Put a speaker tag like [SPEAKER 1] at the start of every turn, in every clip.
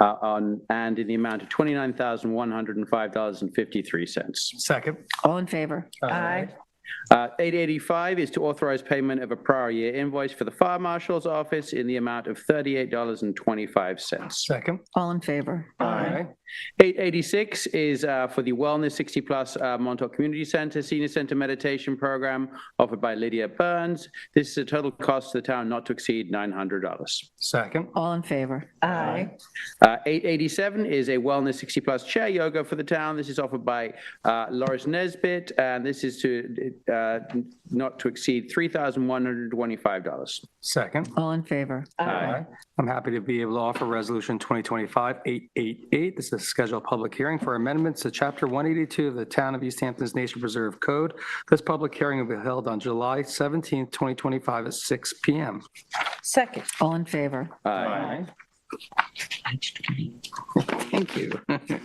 [SPEAKER 1] uh, on, and in the amount of $29,105.53.
[SPEAKER 2] Second.
[SPEAKER 3] All in favor?
[SPEAKER 2] Aye.
[SPEAKER 1] Uh, 885 is to authorize payment of a prior year invoice for the Fire Marshal's Office in the amount of $38.25.
[SPEAKER 2] Second.
[SPEAKER 3] All in favor?
[SPEAKER 1] 886 is uh, for the Wellness 60 Plus uh, Montauk Community Center Senior Center Meditation Program offered by Lydia Burns. This is a total cost to the town not to exceed $900.
[SPEAKER 2] Second.
[SPEAKER 3] All in favor?
[SPEAKER 4] Aye.
[SPEAKER 1] Uh, 887 is a Wellness 60 Plus Chair Yoga for the town. This is offered by uh, Loris Nesbit, and this is to uh, not to exceed $3,125.
[SPEAKER 2] Second.
[SPEAKER 3] All in favor?
[SPEAKER 4] Uh,
[SPEAKER 2] Aye. I'm happy to be able to offer Resolution 2025-888. This is to schedule a public hearing for amendments to Chapter 182 of the Town of East Hampton's Nation Preserve Code. This public hearing will be held on July 17th, 2025 at 6 PM.
[SPEAKER 4] Second.
[SPEAKER 3] All in favor?
[SPEAKER 2] Aye. Thank you.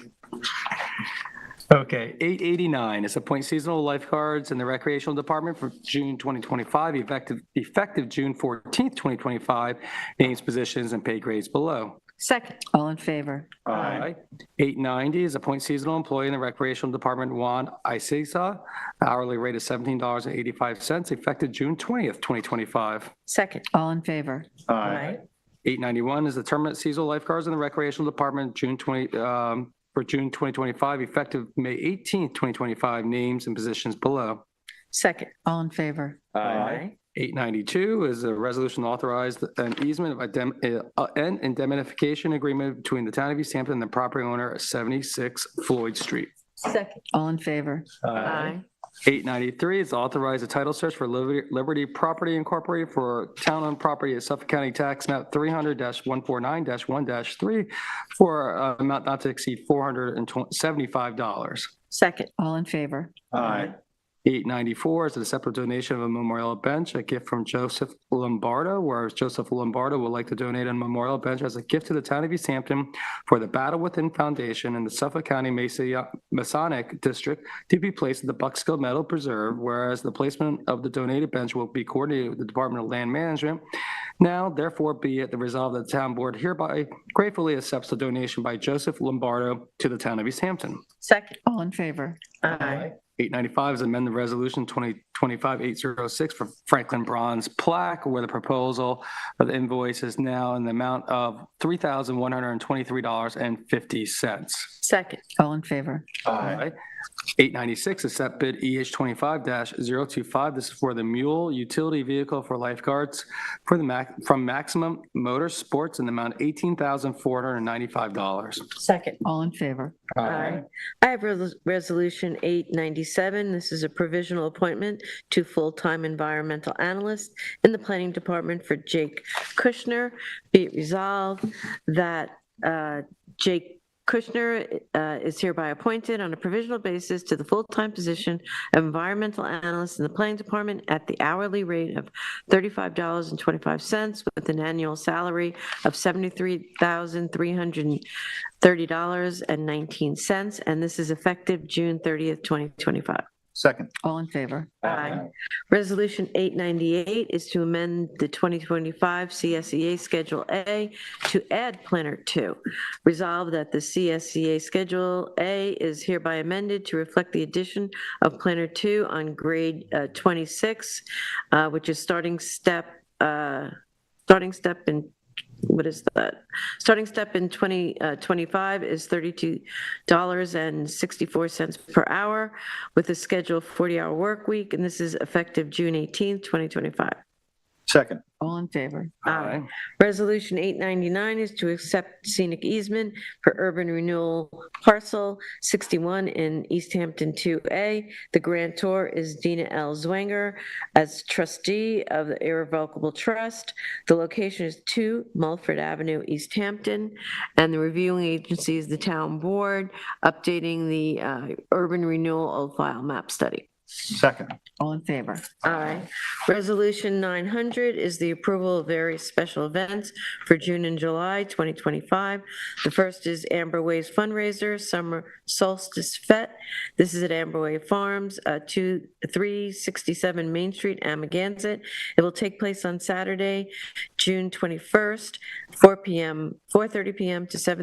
[SPEAKER 2] Okay, 889 is appoint seasonal lifeguards in the recreational department for June 2025, effective, effective June 14th, 2025, names, positions, and pay grades below.
[SPEAKER 4] Second.
[SPEAKER 3] All in favor?
[SPEAKER 2] Aye. 890 is appoint seasonal employee in the recreational department, Juan Isiza, hourly rate of $17.85, effective June 20th, 2025.
[SPEAKER 4] Second.
[SPEAKER 3] All in favor?
[SPEAKER 4] Aye.
[SPEAKER 2] 891 is the terminate seasonal lifeguards in the recreational department, June 20, um, for June 2025, effective May 18th, 2025, names and positions below.
[SPEAKER 4] Second.
[SPEAKER 3] All in favor?
[SPEAKER 4] Aye.
[SPEAKER 2] 892 is a resolution authorized an easement of idem- uh, an indemnification agreement between the town of East Hampton and the property owner at 76 Floyd Street.
[SPEAKER 4] Second.
[SPEAKER 3] All in favor?
[SPEAKER 2] 893 is authorize a title search for Liberty Liberty Property Incorporated for town-owned property at Suffolk County Tax Map 300-149-1-3 for uh, amount not to exceed $475.
[SPEAKER 4] Second.
[SPEAKER 3] All in favor?
[SPEAKER 2] 894 is a separate donation of a memorial bench, a gift from Joseph Lombardo, whereas Joseph Lombardo would like to donate a memorial bench as a gift to the town of East Hampton for the Battle Within Foundation and the Suffolk County Masi- Masonic District to be placed at the Buckskill Metal Preserve, whereas the placement of the donated bench will be coordinated with the Department of Land Management. Now therefore be it the resolve that the town board hereby gratefully accepts the donation by Joseph Lombardo to the town of East Hampton.
[SPEAKER 4] Second.
[SPEAKER 3] All in favor?
[SPEAKER 4] Aye.
[SPEAKER 2] 895 is amend the resolution 2025-806 for Franklin Bronze Plaque, where the proposal of the invoice is now in the amount of $3,123.50.
[SPEAKER 4] Second.
[SPEAKER 3] All in favor?
[SPEAKER 2] Aye. 896 is set bid EH 25-025. This is for the mule utility vehicle for lifeguards for the Mac, from Maximum Motorsports in the amount of $18,495.
[SPEAKER 4] Second.
[SPEAKER 3] All in favor?
[SPEAKER 4] Aye. I have Res- Resolution 897. This is a provisional appointment to full-time environmental analyst in the Planning Department for Jake Kushner. Be it resolved that uh, Jake Kushner uh, is hereby appointed on a provisional basis to the full-time position of environmental analyst in the Planning Department at the hourly rate of $35.25 with an annual salary of $73,300 $30.19, and this is effective June 30th, 2025.
[SPEAKER 5] Second.
[SPEAKER 3] All in favor?
[SPEAKER 4] Aye. Resolution 898 is to amend the 2025 CSEA E Schedule A to add Planner 2. Resolve that the CSEA Schedule A is hereby amended to reflect the addition of Planner 2 on grade uh, 26, uh, which is starting step, uh, starting step in, what is that? Starting step in 2025 is $32.64 per hour with a scheduled 40-hour work week, and this is effective June 18th, 2025.
[SPEAKER 5] Second.
[SPEAKER 3] All in favor?
[SPEAKER 4] Aye. Resolution 899 is to accept scenic easement for urban renewal parcel 61 in East Hampton 2A. The grantor is Dina L. Zwanger as trustee of the irrevocable trust. The location is 2 Mulford Avenue, East Hampton, and the reviewing agency is the town board, updating the uh, urban renewal old file map study.
[SPEAKER 5] Second.
[SPEAKER 3] All in favor?
[SPEAKER 4] Aye. Resolution 900 is the approval of various special events for June and July 2025. The first is Amber Way's fundraiser, Summer Solstice Fete. This is at Amber Way Farms, uh, 2, 367 Main Street, Amagansett. It will take place on Saturday, June 21st, 4 PM, 4:30 PM to 7.